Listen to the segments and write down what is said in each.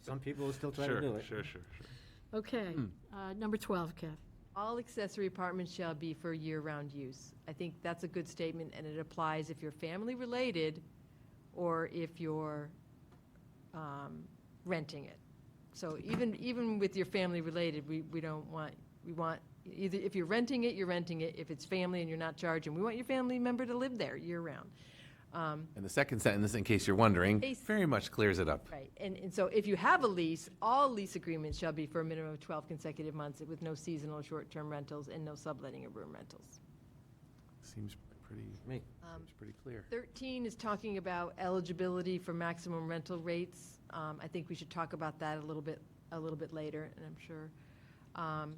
Some people will still try Sure, to do it. Sure, sure, sure. Okay, uh, number 12, Kath. All accessory apartments shall be for year-round use. I think that's a good statement, and it applies if you're family-related or if you're um, renting it. So even, even with your family-related, we, we don't want, we want, either, if you're renting it, you're renting it. If it's family and you're not charging, we want your family member to live there year-round. Um, And the second sentence, in case you're wondering, Case- very much clears it up. Right, and, and so if you have a lease, all lease agreements shall be for a minimum of 12 consecutive months with no seasonal short-term rentals and no subletting of room rentals. Seems pretty, Me. Um, seems pretty clear. 13 is talking about eligibility for maximum rental rates. Um, I think we should talk about that a little bit, a little bit later, and I'm sure. Um,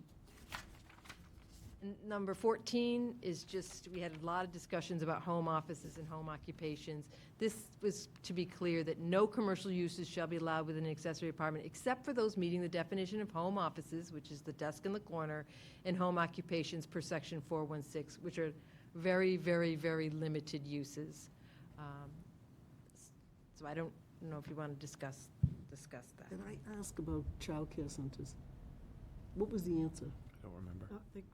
n- Number 14 is just, we had a lot of discussions about home offices and home occupations. This was to be clear that no commercial uses shall be allowed within an accessory apartment except for those meeting the definition of home offices, which is the desk in the corner, and home occupations per section 416, which are very, very, very limited uses. Um, s- So I don't know if you want to discuss, discuss that. Did I uh, ask about childcare centers? What was the answer? I don't remember. I think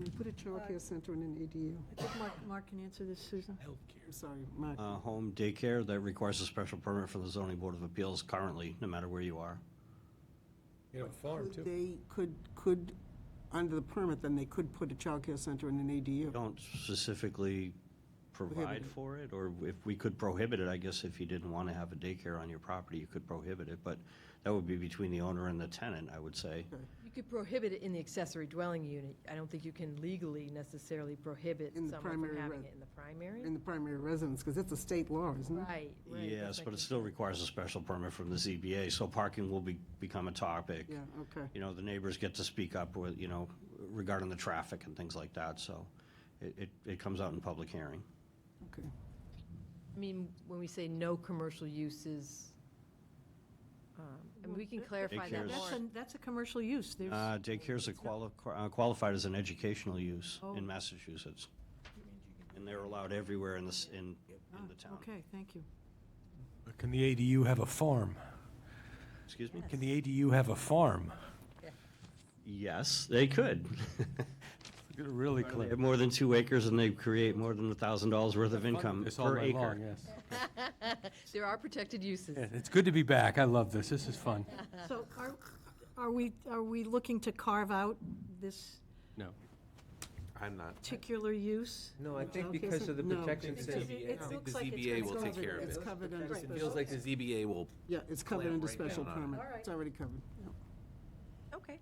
We put a childcare center in an ADU. Mark, Mark can answer this, Susan. I'm sorry, Mark. Uh, Home daycare, that requires a special permit from the zoning board of appeals currently, no matter where you are. You have a farm Could They could, could, under the permit, then they could put a childcare center in an We ADU. Don't specifically provide for it, or if we could prohibit it, I guess if you didn't want to have a daycare on your property, you could prohibit it, but that would be between the owner and the tenant, I would say. You could prohibit it in the accessory dwelling unit. I don't think you can legally necessarily prohibit In the someone from primary having res- it in the primary. In the primary residence, because it's a state law, isn't it? Right, right. Mm-hmm. Yes, that's but like- it still requires a special permit from the ZBA, so parking will be, become a topic. Yeah, okay. You know, the neighbors get to speak up with, you know, regarding the traffic and things like that, so it, it, it comes out in public hearing. Okay. I mean, when we say no commercial uses, um, and we can clarify that Daycares. That's more. a, that's a commercial use. There's, Uh, Daycare's a quali- uh, qualified as an educational use Oh. in Massachusetts. And they're allowed everywhere in this, in, in the town. Ah, okay, thank you. Can the ADU have a farm? Excuse me? Can the ADU have a farm? Yes, they could. You're Really They clear. have more than two acres and they create more than a thousand dollars worth of income This all per night long, acre. yes. There are protected uses. Yeah, It's good to be back. I love this. This is fun. So are, are we, are we looking to carve out this No. I'm not. particular use? No, I think Childcare because of the center- no. protections that. Because it- it I think looks the like it's ZBA will covered. take care of It's it. covered under It special, feels like the ZBA will yeah, it's covered clamp under right down special on it. permit. All right. It's already covered. yeah. Okay,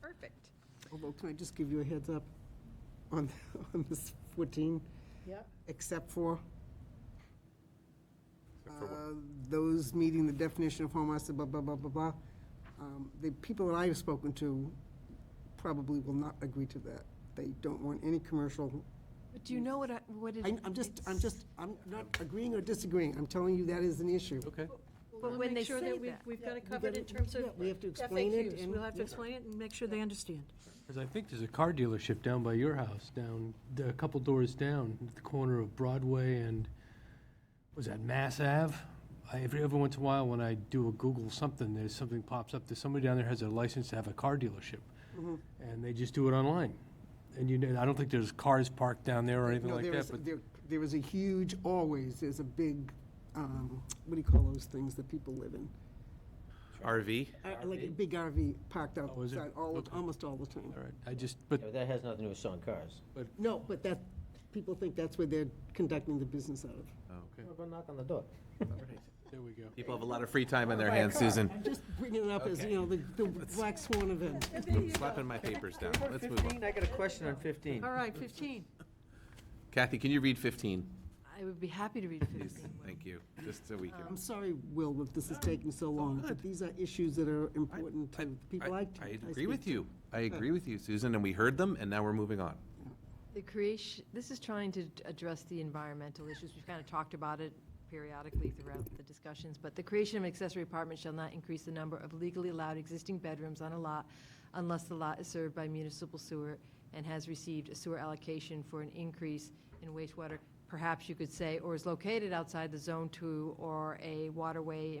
perfect. Although, can I just give you a heads up on, on this 14? Yep. except for uh, those meeting the definition of home office, blah, blah, blah, blah, blah. Um, The people that I have spoken to probably will not agree to that. They don't want any commercial, But do you know what I, what is? I- I'm just, I'm just, I'm not agreeing or disagreeing, I'm telling you that is an issue. Okay. But when they say We'll make sure that we- that. we've got it we covered gotta- in terms of yeah, we have to explain it FAQs. and- We'll have to yeah. explain it and make sure they understand. Because I think there's a car dealership down by your house, down, a couple doors down, at the corner of Broadway and, was that Mass Ave? I, every, every once in a while, when I do a Google something, there's something pops up, there's somebody down there has a license to have a car dealership. And they just do it online. And you, know, I don't think there's cars parked down there or anything No, like there that, is, but there- there is a huge, always, there's a big, um, what do you call those things that people live in? RV? Uh, Like a big RV parked Oh, is it? outside all, Okay. almost all the time. All right, I just, but, Yeah, but that has nothing to do with selling cars. No, but that, people think that's where they're conducting the business out of. Oh, Well, Go knock on the door. there we go. People have a lot of free time on Oh their hands, Susan. I'm just bringing it up as, you know, the, the black swan event. Slapping my papers down. Let's move on. 15, I got a question on 15. All right, 15. Kathy, can you read 15? I would be happy to read Please, 15. thank you, just so we can. I'm sorry, Will, that this is taking so long, but these are issues that are important to people I. I agree speak with to. you. I agree with you, Susan, and we heard them, and now we're moving on. The creation, this is trying to address the environmental issues. We've kind of talked about it periodically throughout the discussions, but the creation of an accessory apartment shall not increase the number of legally allowed existing bedrooms on a lot unless the lot is served by municipal sewer and has received a sewer allocation for an increase in wastewater, perhaps you could say, or is located outside the zone two or a waterway